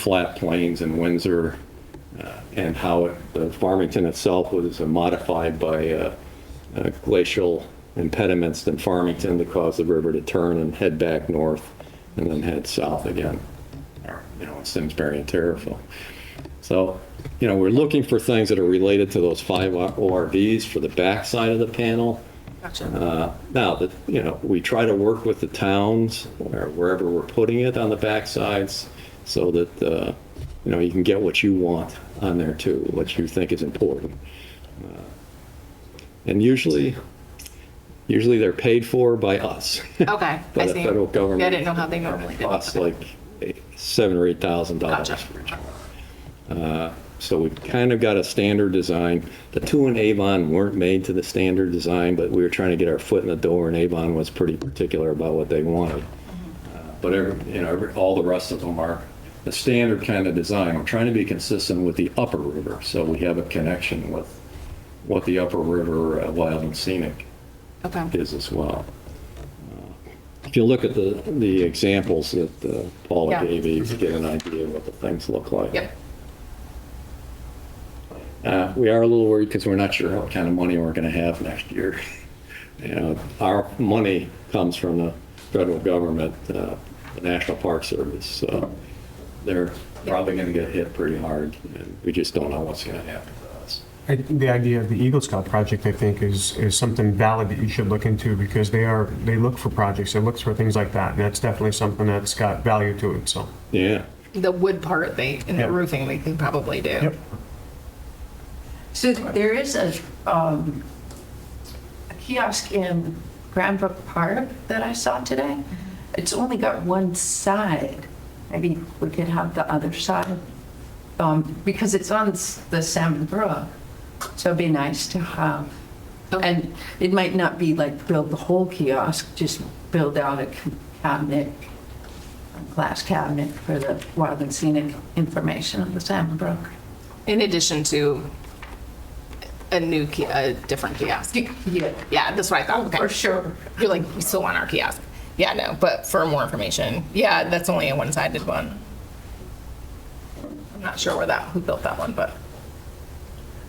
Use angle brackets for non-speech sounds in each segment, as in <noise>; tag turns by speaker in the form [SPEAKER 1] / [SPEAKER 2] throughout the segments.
[SPEAKER 1] flat plains and Windsor, uh, and how it- the Farmington itself was modified by uh, uh, glacial impediments in Farmington to cause the river to turn and head back north and then head south again, or, you know, in Simsbury and Terrifil. So, you know, we're looking for things that are related to those five ORVs for the backside of the panel.
[SPEAKER 2] Gotcha.
[SPEAKER 1] Uh, Now, that, you know, we try to work with the towns or wherever we're putting it on the backsides so that, uh, you know, you can get what you want on there too, what you think is important. Uh, And usually, usually they're paid for by us. <laughs>
[SPEAKER 2] Okay,
[SPEAKER 1] By
[SPEAKER 2] I
[SPEAKER 1] the
[SPEAKER 2] see.
[SPEAKER 1] federal government.
[SPEAKER 2] Yeah, I didn't know how they normally did it.
[SPEAKER 1] Costs like eight- seven or eight thousand dollars
[SPEAKER 2] Gotcha.
[SPEAKER 1] for each one. Uh, So we've kind of got a standard design. The two in Avon weren't made to the standard design, but we were trying to get our foot in the door, and Avon was pretty particular about what they wanted.
[SPEAKER 2] Mm-hmm.
[SPEAKER 1] Uh, But every, you know, every- all the rest of them are the standard kind of design. We're trying to be consistent with the upper river, so we have a connection with what the upper river uh, wild and scenic Uh,
[SPEAKER 2] Okay,
[SPEAKER 1] is as well. If you look at the, the examples that uh, Paula
[SPEAKER 2] Yeah.
[SPEAKER 1] gave you, you get an idea of what the things look like.
[SPEAKER 2] yep,
[SPEAKER 1] Uh, We are a little worried because we're not sure what kind of money we're going to have next year. <laughs> You know, our money comes from the federal government, uh, the National Park Service, so they're probably going to get hit pretty hard, and we just don't know what's going to happen to us.
[SPEAKER 3] I- The idea of the Eagle Scout project, I think, is, is something valid that you should look into because they are, they look for projects, they look for things like that, and that's definitely something that's got value to it, so.
[SPEAKER 1] Yeah.
[SPEAKER 2] the wood part they, and the
[SPEAKER 3] Yep.
[SPEAKER 2] roofing they can probably do.
[SPEAKER 4] So there is a, um, a kiosk in Grand Brook Park that I saw today. It's only got one side. Maybe we could have the other side, um, because it's on s- the Salmon Brook. So it'd be nice to have. And it might not be like build the whole kiosk, just build out a c- cabinet, a glass cabinet for the wild and scenic information on the Salmon Brook.
[SPEAKER 2] In addition to a new, ki- a different kiosk.
[SPEAKER 4] Yeah. Oh,
[SPEAKER 2] Yeah, that's what I thought.
[SPEAKER 4] For
[SPEAKER 2] Okay.
[SPEAKER 4] sure.
[SPEAKER 2] You're like, you still want our kiosk. Yeah, no, but for more information, yeah, that's only a one-sided one. I'm not sure where that, who built that one, but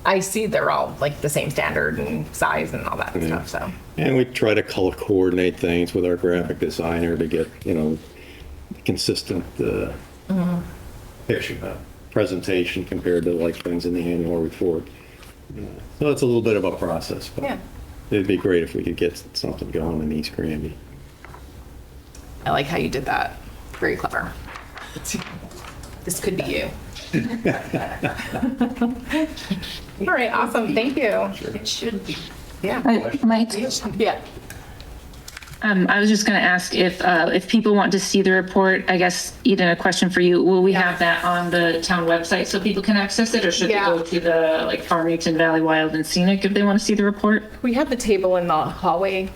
[SPEAKER 2] I see they're all like the same standard and size and all that stuff, so.
[SPEAKER 1] And we try to color coordinate things with our graphic designer to get, you know, consistent uh,
[SPEAKER 3] Mm-hmm.
[SPEAKER 1] picture, uh, presentation compared to like things in the annual report. Yeah. So it's a little bit of a process, but
[SPEAKER 2] Yeah.
[SPEAKER 1] it'd be great if we could get something going in East Granby.
[SPEAKER 2] I like how you did that. Very clever. This could be you. All right, awesome. Thank you.
[SPEAKER 4] It should be.
[SPEAKER 2] Yeah.
[SPEAKER 5] Uh, Mike,
[SPEAKER 2] Yeah.
[SPEAKER 5] um, I was just going to ask if, uh, if people want to see the report, I guess, Eden, a question for you. Will we have that on the town website so people can access it or should they
[SPEAKER 2] Yeah.
[SPEAKER 5] go to the like Farmington Valley Wild and Scenic if they want to see the report?
[SPEAKER 2] We have the table in the hallway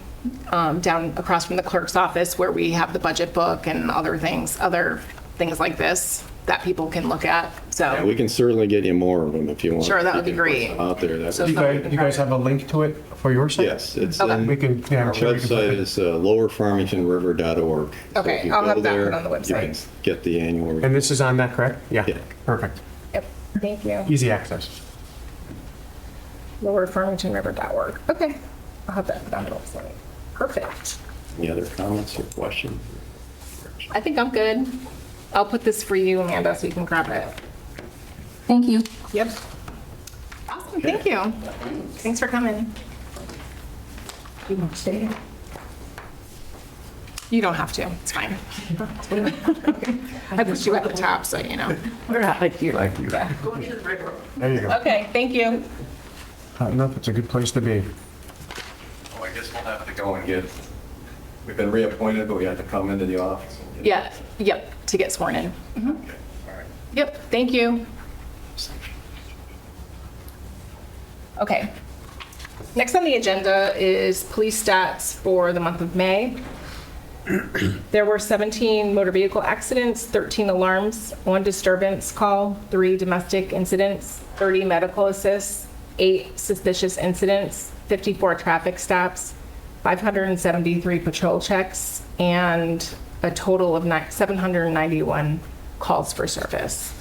[SPEAKER 2] um, down across from the clerk's office where we have the budget book and other things, other things like this that people can look at.
[SPEAKER 1] And we
[SPEAKER 2] So,
[SPEAKER 1] can certainly get you more of them if you want.
[SPEAKER 2] Sure, that
[SPEAKER 1] You
[SPEAKER 2] would be
[SPEAKER 1] can put
[SPEAKER 2] great.
[SPEAKER 1] some Out there, that
[SPEAKER 2] So
[SPEAKER 1] would
[SPEAKER 3] You
[SPEAKER 1] be,
[SPEAKER 3] guys, you guys have a link to it for your site?
[SPEAKER 1] yes, it's
[SPEAKER 2] Okay.
[SPEAKER 1] in.
[SPEAKER 3] We can, yeah, I'm
[SPEAKER 1] Our
[SPEAKER 3] sure you can put
[SPEAKER 1] website
[SPEAKER 3] it-
[SPEAKER 1] is uh, lowerfarmingtonriver.org. So
[SPEAKER 2] Okay,
[SPEAKER 1] if you
[SPEAKER 2] I'll
[SPEAKER 1] go
[SPEAKER 2] have that
[SPEAKER 1] there,
[SPEAKER 2] one on the
[SPEAKER 1] you can
[SPEAKER 2] website.
[SPEAKER 1] Get the annual. report.
[SPEAKER 3] And this is on that, correct? Yeah.
[SPEAKER 1] Yeah.
[SPEAKER 3] Perfect.
[SPEAKER 2] Yep. thank you.
[SPEAKER 3] Easy access.
[SPEAKER 2] lowerfarmingtonriver.org. Okay. I'll have that down the website. Perfect.
[SPEAKER 1] Any other comments or questions?
[SPEAKER 2] I think I'm good. I'll put this for you, Amanda, so you can grab it.
[SPEAKER 5] Thank you.
[SPEAKER 2] Yep. Awesome, thank you. Thanks for coming.
[SPEAKER 4] You want to stay?
[SPEAKER 2] You don't have to, it's fine. <laughs> I put you at the top, so you know.
[SPEAKER 4] We're out of here.
[SPEAKER 3] Thank you. There you go.
[SPEAKER 2] Okay, thank you.
[SPEAKER 3] Uh, No, it's a good place to be.
[SPEAKER 1] Oh, I guess we'll have to go and get, we've been reappointed, but we have to come into the office. and get-
[SPEAKER 2] Yeah, yep, to get sworn in.
[SPEAKER 1] Okay, all right.
[SPEAKER 2] Yep, thank you. Okay. Next on the agenda is police stats for the month of May. There were 17 motor vehicle accidents, 13 alarms, one disturbance call, three domestic incidents, 30 medical assists, eight suspicious incidents, 54 traffic stops, 573 patrol checks, and a total of ni- 791 calls for service.